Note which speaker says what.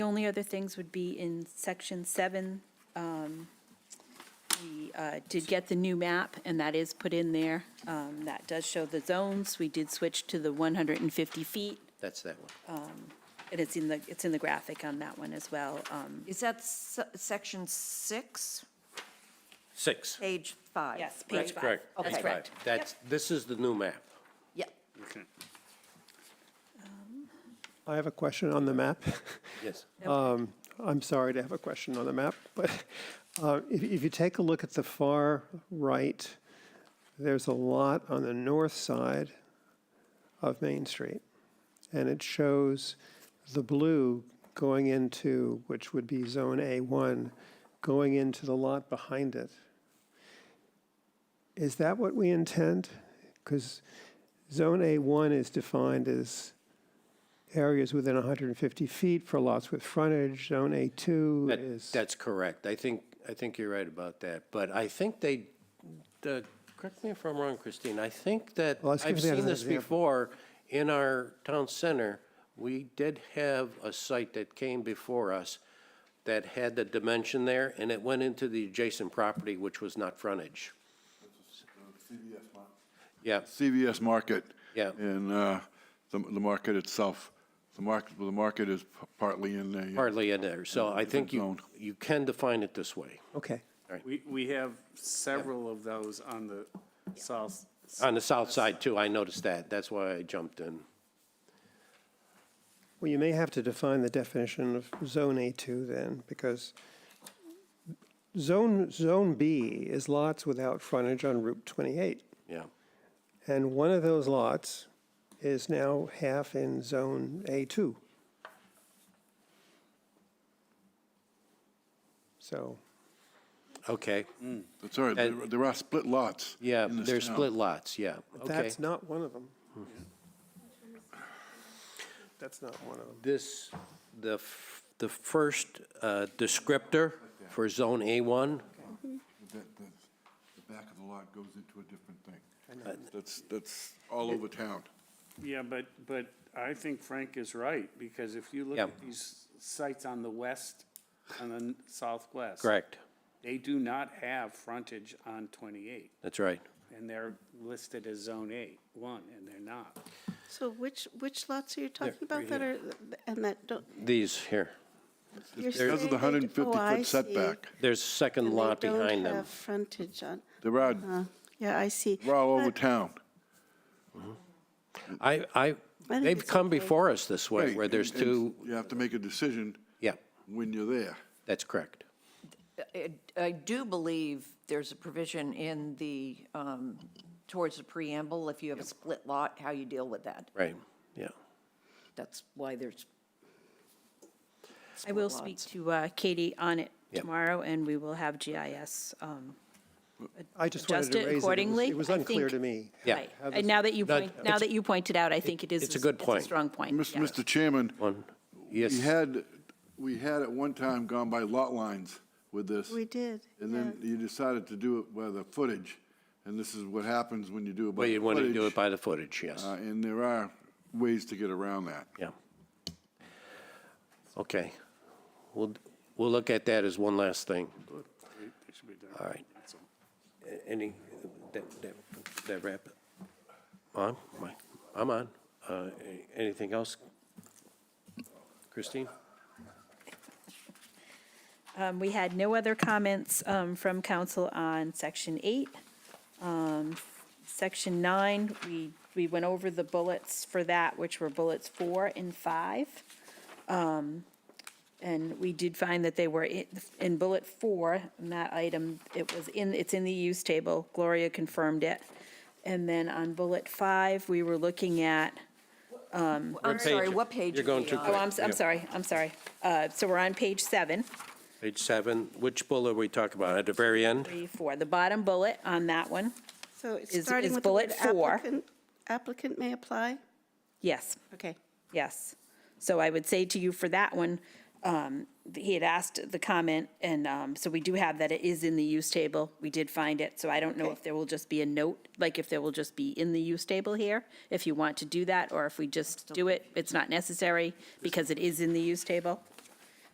Speaker 1: The only other things would be in section seven, um, we uh, did get the new map, and that is put in there. Um, That does show the zones. We did switch to the 150 feet,
Speaker 2: That's that one.
Speaker 1: and it's in the, it's in the graphic on that one as well. Um,
Speaker 3: Is that s- section six,
Speaker 4: Six.
Speaker 3: page five?
Speaker 1: Yes,
Speaker 3: right?
Speaker 1: page five. Oh,
Speaker 3: Okay.
Speaker 1: That's correct.
Speaker 2: That's, this is the new map.
Speaker 3: Yeah,
Speaker 4: Okay.
Speaker 5: I have a question on the map.
Speaker 2: Yes.
Speaker 5: I'm sorry to have a question on the map, but uh, if if you take a look at the far right, there's a lot on the north side of Main Street. And it shows the blue going into, which would be Zone A1, going into the lot behind it. Is that what we intend? Because Zone A1 is defined as areas within 150 feet for lots with frontage. Zone A2
Speaker 2: That-
Speaker 5: is,
Speaker 2: That's correct. I think, I think you're right about that. But I think they, the, correct me if I'm wrong, Christine, I think that,
Speaker 5: Well, let's give
Speaker 2: I've
Speaker 5: that as
Speaker 2: seen
Speaker 5: an
Speaker 2: this
Speaker 5: example.
Speaker 2: before, in our town center, we did have a site that came before us that had the dimension there, and it went into the adjacent property, which was not frontage. Yeah,
Speaker 6: CVS Market.
Speaker 2: Yeah.
Speaker 6: And uh, the the market itself, the market, the market is partly in the.
Speaker 2: hardly in there. So I think you,
Speaker 6: Different
Speaker 2: you can define it this way.
Speaker 5: okay.
Speaker 4: We, we have several of those on the south.
Speaker 2: On the south side too, I noticed that. That's why I jumped in.
Speaker 5: Well, you may have to define the definition of Zone A2 then, because Zone, Zone B is lots without frontage on Route 28.
Speaker 2: Yeah.
Speaker 5: And one of those lots is now half in Zone A2. So,
Speaker 2: Okay.
Speaker 6: That's all right, uh, there
Speaker 2: And-
Speaker 6: there are split lots.
Speaker 2: uh, Yeah,
Speaker 6: in this
Speaker 2: they're
Speaker 6: town.
Speaker 2: split lots, yeah. Okay.
Speaker 5: that's not one of them. That's not one of them.
Speaker 2: This, the, f- the first uh, descriptor for Zone A1,
Speaker 6: That- that's- The back of the lot goes into a different
Speaker 2: Uh,
Speaker 6: thing. That's, that's all over town.
Speaker 4: Yeah, but, but I think Frank is right, because if you look
Speaker 2: Yeah.
Speaker 4: at these sites on the west and the southwest.
Speaker 2: correct,
Speaker 4: They do not have frontage on 28,
Speaker 2: that's right.
Speaker 4: and they're listed as Zone 8, 1, and they're not.
Speaker 7: So which, which lots are you talking about that are, and that don't,
Speaker 2: These here,
Speaker 7: you're saying?
Speaker 6: Because of the
Speaker 7: they-
Speaker 6: hundred and fifty
Speaker 7: oh, I
Speaker 6: foot
Speaker 7: see.
Speaker 6: setback,
Speaker 2: there's a second
Speaker 7: And
Speaker 2: lot
Speaker 7: they don't
Speaker 2: behind them.
Speaker 7: have frontage on,
Speaker 6: there are,
Speaker 7: uh, yeah, I see.
Speaker 6: we're all over town.
Speaker 2: I, I,
Speaker 7: think
Speaker 2: they've
Speaker 7: it's
Speaker 2: come
Speaker 7: okay.
Speaker 2: before us this way,
Speaker 6: Right,
Speaker 2: where there's
Speaker 6: and-
Speaker 2: two,
Speaker 6: and You have to make a decision
Speaker 2: yeah,
Speaker 6: when you're there.
Speaker 2: that's correct.
Speaker 3: I- I do believe there's a provision in the, um, towards the preamble, if you have a split lot, how you deal with that.
Speaker 2: Right, yeah.
Speaker 3: That's why there's.
Speaker 1: I will speak to uh, Katie on it tomorrow, and we will have GIS. um,
Speaker 5: I just wanted
Speaker 1: Adjust
Speaker 5: to
Speaker 1: it
Speaker 5: raise it. It was-
Speaker 1: accordingly,
Speaker 5: It was
Speaker 1: I
Speaker 5: unclear
Speaker 1: think.
Speaker 5: to me.
Speaker 2: Yeah.
Speaker 1: right. And now that you
Speaker 2: That-
Speaker 1: point, now that you pointed out, I think it is.
Speaker 2: it's a good point.
Speaker 1: strong point.
Speaker 6: Mis-
Speaker 1: yes.
Speaker 6: Mr. Chairman,
Speaker 2: One,
Speaker 6: we
Speaker 2: yes,
Speaker 6: had, we had at one time gone by lot lines with this.
Speaker 7: We did,
Speaker 6: And
Speaker 7: yeah.
Speaker 6: then you decided to do it by the footage, and this is what happens when you do it by
Speaker 2: well,
Speaker 6: the
Speaker 2: you
Speaker 6: footage.
Speaker 2: want to do it by the footage, yes,
Speaker 6: Uh, And there are ways to get around that.
Speaker 2: yeah. Okay, we'll, we'll look at that as one last thing.
Speaker 4: They should be done.
Speaker 2: All right. A- Any, that, that, that wrap it? On, Mike, I'm on. Uh, a- anything else? Christine?
Speaker 1: Um, We had no other comments um, from council on section eight. Um, Section nine, we, we went over the bullets for that, which were bullets four and five. Um, And we did find that they were i- in bullet four, in that item, it was in, it's in the use table, Gloria confirmed it. And then on bullet five, we were looking at,
Speaker 3: I'm sorry,
Speaker 2: page?
Speaker 3: what page?
Speaker 2: You're
Speaker 3: are
Speaker 2: going
Speaker 3: we
Speaker 2: too
Speaker 3: on?
Speaker 1: oh, I'm, s- I'm sorry, I'm sorry. Uh, So we're on page seven.
Speaker 2: Page seven, which bullet are we talking about? At the very end?
Speaker 1: three, four, the bottom bullet on that one,
Speaker 7: So it's
Speaker 1: Is-
Speaker 7: starting
Speaker 1: is
Speaker 7: with the word
Speaker 1: bullet four.
Speaker 7: applicant, applicant may apply?
Speaker 1: yes,
Speaker 7: Okay.
Speaker 1: yes. So I would say to you for that one, um, he had asked the comment, and um, so we do have that it is in the use table. We did find it, so I don't know
Speaker 7: Okay.
Speaker 1: if there will just be a note, like if there will just be in the use table here, if you want to do that, or if we just do it, it's not necessary, because it is in the use table.